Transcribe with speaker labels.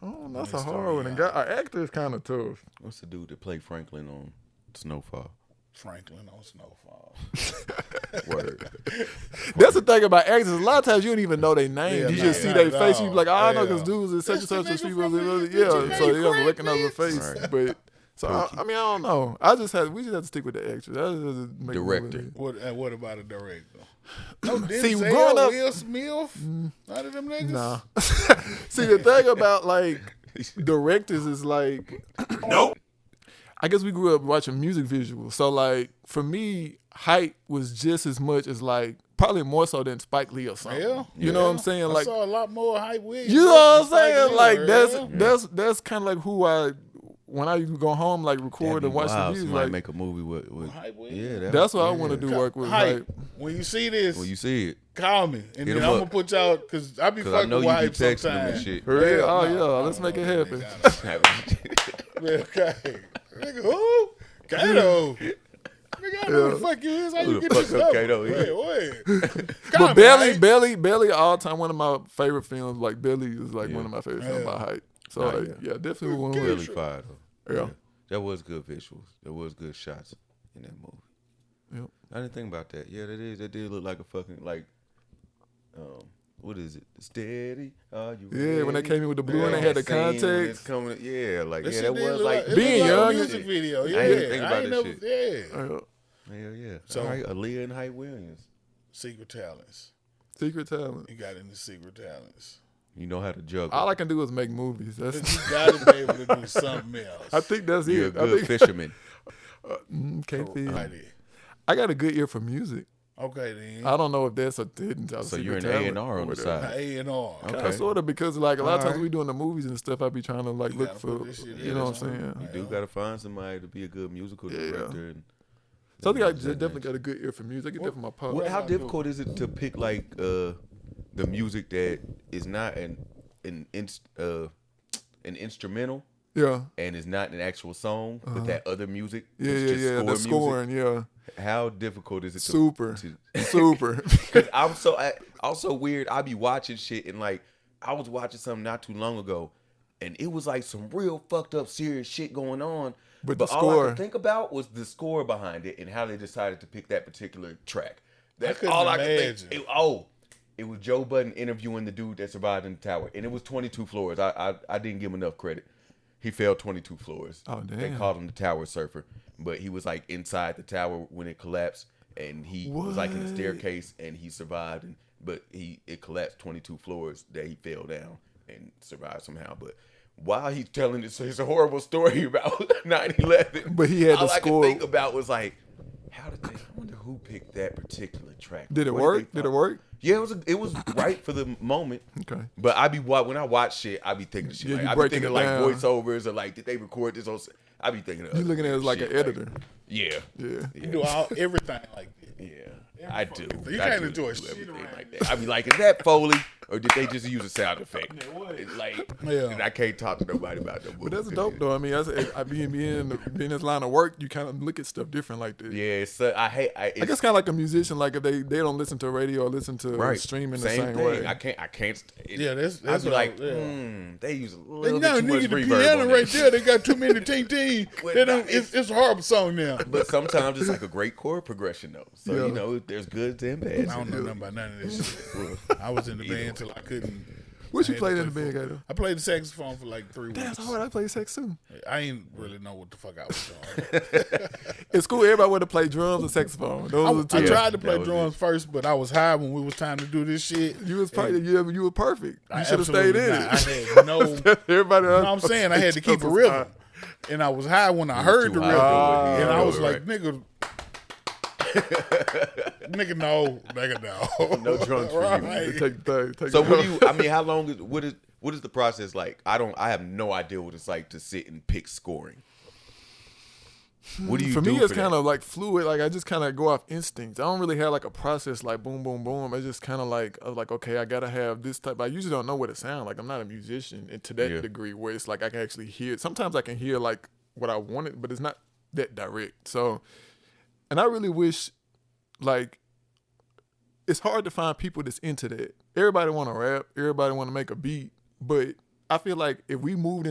Speaker 1: Damn, Oh, that's a hard one. And got our actor is kind of tough.
Speaker 2: What's the dude that played Franklin on Snowfall?
Speaker 3: Franklin on Snowfall.
Speaker 2: Word.
Speaker 1: That's the thing about actors. A lot of times you don't even know their name.
Speaker 3: Yeah,
Speaker 1: you
Speaker 3: nah,
Speaker 1: just see
Speaker 3: not
Speaker 1: their
Speaker 3: at
Speaker 1: face.
Speaker 3: all.
Speaker 1: You be like, oh, I know
Speaker 3: Yeah.
Speaker 1: this dude is such and
Speaker 3: That's the
Speaker 1: such. And
Speaker 3: nigga
Speaker 1: she
Speaker 3: from
Speaker 1: was,
Speaker 3: the-
Speaker 1: yeah.
Speaker 3: the
Speaker 1: So you
Speaker 3: Janae
Speaker 1: don't recognize the
Speaker 3: Franklin.
Speaker 1: face. But so I, I mean, I don't know. I just had we just had to stick with the actors. I just had to make a movie.
Speaker 2: Director.
Speaker 3: What and what about a director? No, Denzel,
Speaker 1: See, growing up- Mm.
Speaker 3: Will Smith, none of them niggas.
Speaker 1: Nah. See, the thing about like directors is like, nope. I guess we grew up watching music visuals, so like for me, height was just as much as like probably more so than Spike Lee or something.
Speaker 3: Yeah.
Speaker 1: You know what I'm saying?
Speaker 3: I
Speaker 1: Like,
Speaker 3: saw a lot more hype with
Speaker 1: you know what I'm saying? Like that's
Speaker 3: yeah.
Speaker 1: that's that's kind of like who I when I go home like record and watch the music.
Speaker 2: Somebody
Speaker 1: Like
Speaker 2: make a movie with. with
Speaker 3: Hype with
Speaker 2: yeah,
Speaker 3: it.
Speaker 2: that
Speaker 1: that's what I
Speaker 2: yeah.
Speaker 1: want to do work with.
Speaker 3: hype.
Speaker 1: Like,
Speaker 3: When you see this,
Speaker 2: When you see it,
Speaker 3: call me, and
Speaker 2: Hit
Speaker 3: then
Speaker 2: 'em
Speaker 3: I'm
Speaker 2: up.
Speaker 3: gonna put y'all because I be
Speaker 2: because I
Speaker 3: fucking
Speaker 2: know
Speaker 3: with
Speaker 2: you be
Speaker 3: hype
Speaker 2: texting them and
Speaker 3: sometimes.
Speaker 2: shit.
Speaker 1: for real?
Speaker 3: nah,
Speaker 1: oh
Speaker 3: I
Speaker 1: yeah,
Speaker 3: don't
Speaker 1: let's make
Speaker 3: know
Speaker 1: it
Speaker 3: that
Speaker 1: happen.
Speaker 3: nigga. Man, okay. Nigga, who? Kato. Nigga, I know who the fuck you is. How
Speaker 2: Who
Speaker 3: you
Speaker 2: the
Speaker 3: get this
Speaker 2: fuck up
Speaker 3: number?
Speaker 2: Kato is?
Speaker 3: Wait, wait.
Speaker 1: But
Speaker 3: Comment,
Speaker 1: Belly,
Speaker 3: right?
Speaker 1: Belly, Belly, all time one of my favorite films. Like Belly is like one of my favorite films
Speaker 3: Yeah.
Speaker 1: by height. So
Speaker 2: Nah,
Speaker 1: like,
Speaker 2: yeah.
Speaker 1: yeah. definitely one.
Speaker 3: Good
Speaker 1: Way.
Speaker 2: Really fire though.
Speaker 1: Yeah.
Speaker 2: That was good visuals. That was good shots in that movie.
Speaker 1: Yep.
Speaker 2: I didn't think about that. Yeah, that is. That did look like a fucking like. Um, what is it? Steady. Are you
Speaker 1: Yeah, when they
Speaker 2: ready?
Speaker 1: came in with the blue and they
Speaker 2: Yeah,
Speaker 1: had the
Speaker 2: scene when
Speaker 1: context.
Speaker 2: it's Coming, yeah, like
Speaker 3: That
Speaker 2: yeah,
Speaker 3: shit
Speaker 2: that
Speaker 3: did
Speaker 2: was
Speaker 3: look
Speaker 2: like
Speaker 3: it
Speaker 1: Being
Speaker 3: looked like
Speaker 1: young
Speaker 3: a music
Speaker 2: shit.
Speaker 3: video. Yeah,
Speaker 2: I didn't think about
Speaker 3: I ain't
Speaker 2: that
Speaker 3: never, Yeah,
Speaker 1: Yeah.
Speaker 2: Hell yeah.
Speaker 3: So-
Speaker 2: So, All right, Aaliyah and Hype Williams.
Speaker 3: secret talents.
Speaker 1: Secret talent.
Speaker 3: You got into secret talents.
Speaker 2: You know how to juggle.
Speaker 1: All I can do is make movies.
Speaker 3: You
Speaker 1: That's.
Speaker 3: gotta be able to do something else.
Speaker 1: I think that's
Speaker 2: You're a
Speaker 1: it. I
Speaker 2: good
Speaker 1: think
Speaker 2: fisherman.
Speaker 1: Mm, can't think.
Speaker 3: Right there.
Speaker 1: I got a good ear for music.
Speaker 3: Okay then.
Speaker 1: I don't know if that's a hidden talent.
Speaker 2: So you're an
Speaker 1: secret
Speaker 2: A
Speaker 1: talent
Speaker 2: and R on the
Speaker 1: whatever.
Speaker 2: side.
Speaker 3: A and R.
Speaker 2: Okay.
Speaker 1: Kind of, sort of, because like a lot of times
Speaker 2: Alright.
Speaker 1: we doing the movies and stuff, I be trying to like look
Speaker 3: gotta
Speaker 1: for,
Speaker 3: put this shit
Speaker 1: you
Speaker 3: in
Speaker 1: know
Speaker 3: or
Speaker 1: what I'm saying?
Speaker 3: something.
Speaker 2: You do gotta find somebody to be a good musical
Speaker 1: Yeah.
Speaker 2: director. And
Speaker 1: So I think I
Speaker 2: Yeah.
Speaker 1: definitely got a good ear for music. I get that from my pop.
Speaker 2: What, how difficult is it to pick like uh, the music that is not an an inst, uh, an instrumental
Speaker 1: Yeah,
Speaker 2: and is not an actual song, but that other music?
Speaker 1: Uh-huh. yeah,
Speaker 2: that's
Speaker 1: yeah,
Speaker 2: just
Speaker 1: yeah. The
Speaker 2: music?
Speaker 1: scoring, yeah,
Speaker 2: How difficult is it? to-
Speaker 1: super,
Speaker 2: to-
Speaker 1: super.
Speaker 2: Cause I'm so I, I'm so weird. I be watching shit and like I was watching something not too long ago, and it was like some real fucked up serious shit going on.
Speaker 1: But
Speaker 2: But,
Speaker 1: the
Speaker 2: all I
Speaker 1: score.
Speaker 2: could think about was the score behind it and how they decided to pick that particular track. That's
Speaker 3: couldn't
Speaker 2: all I could
Speaker 3: imagine.
Speaker 2: think. It- oh, it was Joe Budden interviewing the dude that survived in the tower, and it was 22 floors. I I, I didn't give him enough credit. He fell 22 floors.
Speaker 1: Oh,
Speaker 2: They
Speaker 1: damn.
Speaker 2: called him the tower surfer, but he was like inside the tower when it collapsed, and he he was like in the
Speaker 1: What?
Speaker 2: staircase and he survived and but he it collapsed 22 floors that he fell down and survived somehow but while he's telling this it's a horrible story about 9-11
Speaker 1: But he had
Speaker 2: all
Speaker 1: the
Speaker 2: I
Speaker 1: score.
Speaker 2: could think about was like how did they i wonder who picked that particular track
Speaker 1: Did it
Speaker 2: What
Speaker 1: work? Did
Speaker 2: they
Speaker 1: it
Speaker 2: find?
Speaker 1: work?
Speaker 2: yeah it was a, it was right for the moment
Speaker 1: Okay.
Speaker 2: but I be wa- when I watch shit, I be thinking shit.
Speaker 1: Yeah,
Speaker 2: like,
Speaker 1: you
Speaker 2: I be
Speaker 1: breaking
Speaker 2: thinking
Speaker 1: it
Speaker 2: like
Speaker 1: down.
Speaker 2: voiceovers or like did they record this? On, I be thinking of
Speaker 1: You
Speaker 2: other
Speaker 1: looking at it as like
Speaker 2: shit,
Speaker 1: an editor.
Speaker 2: yeah,
Speaker 1: Yeah.
Speaker 3: You do all everything like that.
Speaker 2: yeah, I do.
Speaker 3: thing. You
Speaker 2: I
Speaker 3: can't
Speaker 2: do
Speaker 3: enjoy
Speaker 2: do
Speaker 3: shit
Speaker 2: everything
Speaker 3: around
Speaker 2: like that. I be like, is that Foley or did they just use a sound effect? It's like,
Speaker 3: Yeah.
Speaker 2: and I can't talk to nobody about that.
Speaker 1: But that's dope though. I mean, that's I being being being this line of work, you kind of look at stuff different like this.
Speaker 2: Yeah, it's, so I hate. I, it's,
Speaker 1: I guess kind of like a musician, like if they, they don't listen to radio or listen to
Speaker 2: right.
Speaker 1: streaming the
Speaker 2: same,
Speaker 1: same,
Speaker 2: thing.
Speaker 1: way.
Speaker 2: I can't. I can't. st- It,
Speaker 3: Yeah, that's- that's
Speaker 2: I be
Speaker 3: what I-
Speaker 2: like,
Speaker 3: yeah.
Speaker 2: hmm, they use a little
Speaker 3: And now
Speaker 2: bit too much
Speaker 3: nigga, the
Speaker 2: reverb
Speaker 3: piano
Speaker 2: on
Speaker 3: right
Speaker 2: that.
Speaker 3: there, they got too many ting ting.
Speaker 2: Well,
Speaker 3: They don't.
Speaker 2: nah,
Speaker 3: It's, it's a horrible song now.
Speaker 2: But sometimes it's like a great chord progression though. So
Speaker 1: Yeah.
Speaker 2: you know, there's goods and bads.
Speaker 3: I don't know nothing about none of this shit. I was in the band till I couldn't.
Speaker 1: what you
Speaker 3: I had to
Speaker 1: played in the
Speaker 3: play
Speaker 1: band,
Speaker 3: for-
Speaker 1: Gator?
Speaker 3: I played the saxophone for like three
Speaker 1: That's
Speaker 3: weeks.
Speaker 1: hard. I play sax too.
Speaker 3: I ain't really know what the fuck I was doing.
Speaker 1: In school, everybody wanted to play drums and saxophone. Those are the
Speaker 3: I
Speaker 1: two.
Speaker 3: tried to play
Speaker 2: was
Speaker 3: drums first, but I was high when it was time to do this shit.
Speaker 1: You was probably you, you were perfect.
Speaker 3: I
Speaker 1: You should have
Speaker 3: absolutely
Speaker 1: stayed in
Speaker 3: not.
Speaker 1: it.
Speaker 3: I had no. you know
Speaker 1: Everybody
Speaker 3: what I'm saying? I had to keep a rhythm. And I was high when I heard the
Speaker 2: too
Speaker 3: rhythm.
Speaker 2: high to do it. He
Speaker 3: and I
Speaker 2: didn't
Speaker 3: was
Speaker 2: know it,
Speaker 3: like, nigga. nigga, no. Nigga, no.
Speaker 2: No drums for you.
Speaker 3: Right.
Speaker 1: Take the thing. Take
Speaker 2: So
Speaker 1: the
Speaker 2: what do you? I mean, how long is what is what is the process like? I don't. I have no idea what it's like to sit and pick scoring. What do you
Speaker 1: for
Speaker 2: do
Speaker 1: me, it's
Speaker 2: that?
Speaker 1: kind of like fluid. Like I just kind of go off instinct. I don't really have like a process like boom, boom, boom. I just kind of like I was like, okay, I gotta have this type. I usually don't know what it sounds like. I'm not a musician and to that
Speaker 2: Yeah.
Speaker 1: degree where it's like I can actually hear. it. Sometimes I can hear like what I wanted, but it's not that direct. So, and I really wish, like, it's hard to find people that's into that. Everybody want to rap. Everybody want to make a beat, but I feel like if we moved